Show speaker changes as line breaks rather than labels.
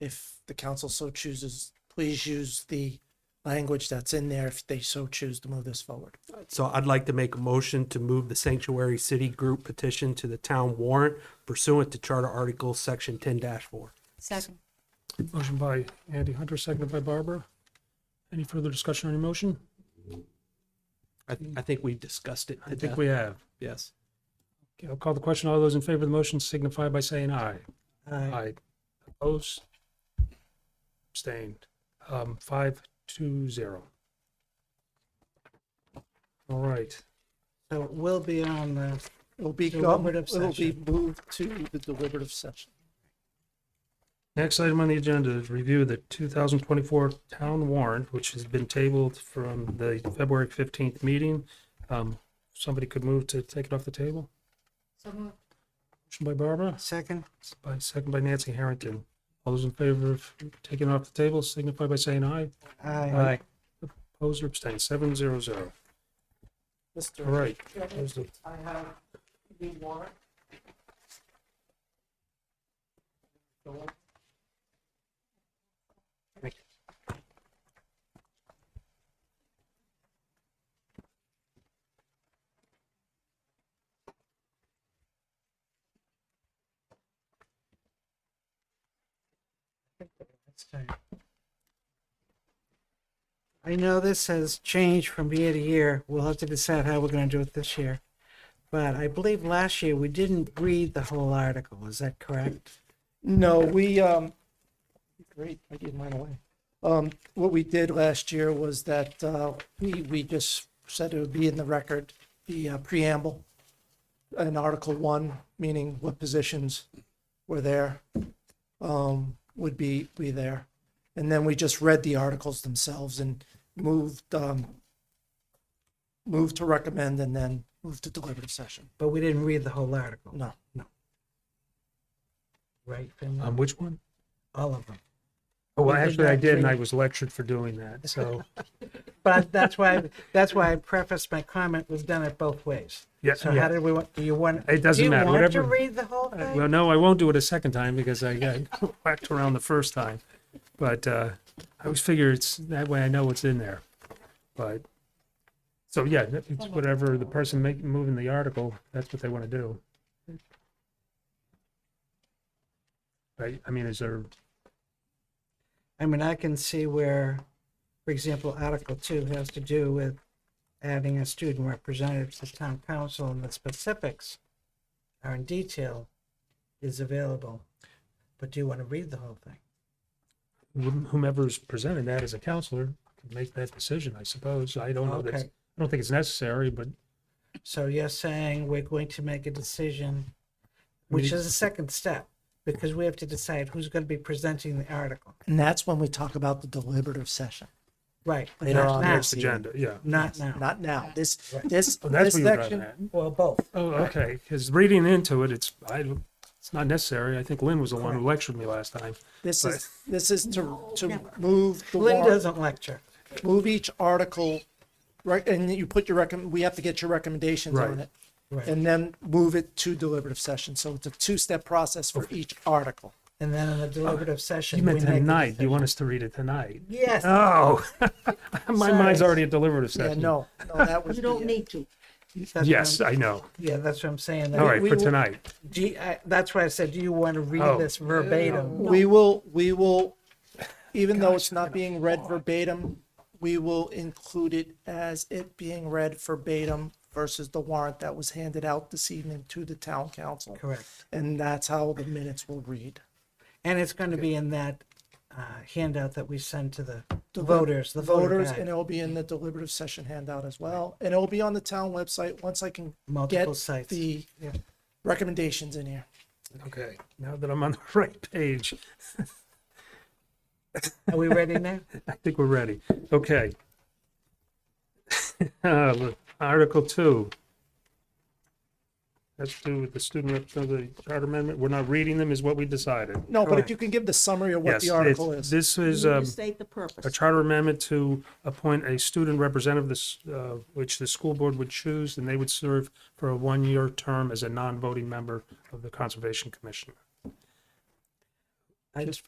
if the council so chooses, please use the language that's in there if they so choose to move this forward.
So I'd like to make a motion to move the sanctuary city group petition to the town warrant pursuant to Charter Article Section ten four.
Second.
Motion by Andy Hunter, seconded by Barbara. Any further discussion on your motion?
I, I think we discussed it.
I think we have.
Yes.
Okay, I'll call the question. All those in favor of the motion signify by saying aye. Aye. Opposed? Abstained. Um, five, two, zero. All right.
So it will be on the,
It'll be, go-
Deliberative
it'll be
session.
moved to the deliberative session.
Next item on the agenda is review the two thousand twenty-four town warrant, which has been tabled from the February fifteenth meeting. Um, somebody could move to take it off the table?
So moved.
Motion by Barbara,
second,
by second by Nancy Harrington. All those in favor of taking it off the table signify by saying aye.
aye.
Opposed or abstained, seven zero zero. All
Mr.
right.
Chairman,
There's the-
I have the warrant.
I know this has changed from year to year. We'll have to decide how we're gonna do it this year. But I believe last year we didn't read the whole article, is that correct?
No, we, um, great, I gave mine away. Um, what we did last year was that, uh, we, we just said it would be in the record, the uh, preamble in Article One, meaning what positions were there, um, would be, be there. And then we just read the articles themselves and moved, um, moved to recommend and then moved to deliberative session.
But we didn't read the whole article,
No, no.
right?
Um,
Finley?
which one?
All of them.
Oh, well,
We did
actually, I
not
did, and
read-
I was lectured for doing that, so,
But that's why, that's why I prefaced my comment, was done it both ways.
yeah,
So how
yeah.
did we want, do you want?
It doesn't matter,
Do you
whatever.
want to read the whole
Uh,
thing?
Well, no, I won't do it a second time because I got whacked around the first time. But uh, I always figure it's that way I know what's in there. But so yeah, that- it's whatever the person making moving the article, that's what they want to do. Right? I mean, is there
I mean, I can see where, for example, Article Two has to do with adding a student representative to town council and the specifics are in detail is available. But do you want to read the whole thing?
whom- whomever's presenting that as a counselor can make that decision, I suppose. I don't know. That's,
Okay.
I don't think it's necessary, but
So you're saying we're going to make a decision, which
We-
is a second step, because we have to decide who's going to be presenting the article.
And that's when we talk about the deliberative session.
Right.
Later
not
on,
now,
next
agenda, yeah.
Not now.
Not now. This, this,
Oh,
this
that's what you're driving
section,
at.
Well, both.
Oh, okay, because reading into it, it's, I, don't- it's not necessary. I think Lynn was the one who lectured me last time.
this is, this is to, to move the
Lynn
warrant,
doesn't lecture.
move each article, right, and you put your recommend, we have to get your recommendations on
Right.
it.
Right.
And then move it to deliberative session. So it's a two-step process for each article.
And then in the deliberative session.
You meant
we make a
tonight. You
decision.
want us to read it tonight?
Yes.
Oh, my mind's
Sorry.
already at deliberative
Yeah,
session.
no, no, that was.
You don't
the-
need to.
That's what
Yes,
I'm-
I know.
Yeah, that's what I'm saying. that
All right,
we
for
will-
tonight.
Do you- I- that's why I said, do you want to read
Oh.
this verbatim?
We will, we will, even though it's not being read verbatim, we will include it as it being read verbatim versus the warrant that was handed out this evening to the town council.
Correct.
And that's how the minutes will read.
And it's going to be in that uh, handout that we send to the
The
voters, the voter
Voters, and
guide,
it'll be in the deliberative session handout as well. And it'll be on the town website once I can get
multiple sites.
the
Yeah.
recommendations in here.
Okay, now that I'm on the right page,
Are we ready now?
I think we're ready. Okay. Uh, Article two. That's to do with the student representative charter amendment. We're not reading them is what we decided.
No, but if
Correct.
you can give the summary of what
Yes,
the
it's-
article is.
This
You
is,
need
um,
to state the
a
purpose.
charter amendment to appoint a student representative, this, uh, which the school board would choose, and they would serve for a one-year term as a non-voting member of the Conservation Commission.
I just